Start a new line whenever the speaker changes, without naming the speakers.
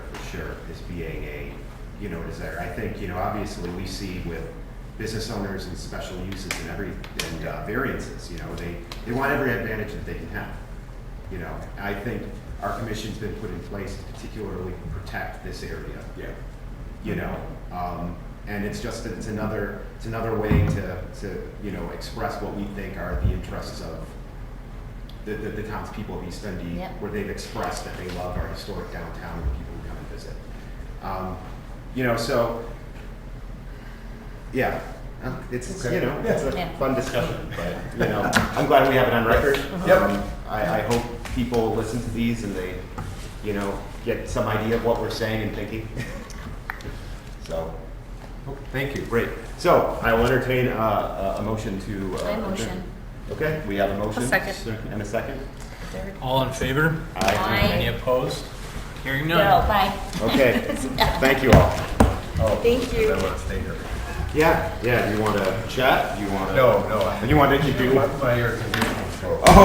sure is being a, you know, is there. I think, you know, obviously we see with business owners and special uses and every, and uh, variances, you know, they, they want every advantage that they can have. You know, I think our commission's been put in place to particularly protect this area
Yeah.
you know, um, and it's just, it's another, it's another way to, to, you know, express what we think are the interests of the, the, the townspeople of East Dundee,
Yep.
where they've expressed that they love our historic downtown and the people who come and visit. Um, you know, so, yeah, uh, it's, you
Okay.
know, it's a
Yeah.
fun discussion, but, you know, I'm glad we have it on record.
Yep.
Um, I, I hope people listen to these and they, you know, get some idea of what we're saying and thinking. So, oh, thank you, great. So I will entertain uh, a, a motion to. uh,
I motion.
Okay, we have a motion.
A second.
And a second.
Third.
All in favor?
Aye.
Any opposed? Hearing
Go,
none.
bye.
Okay, thank you all.
Thank you.
want to stay here.
Yeah, yeah, you want to chat? You want to?
No, no. I-
You want to keep doing?
My air conditioning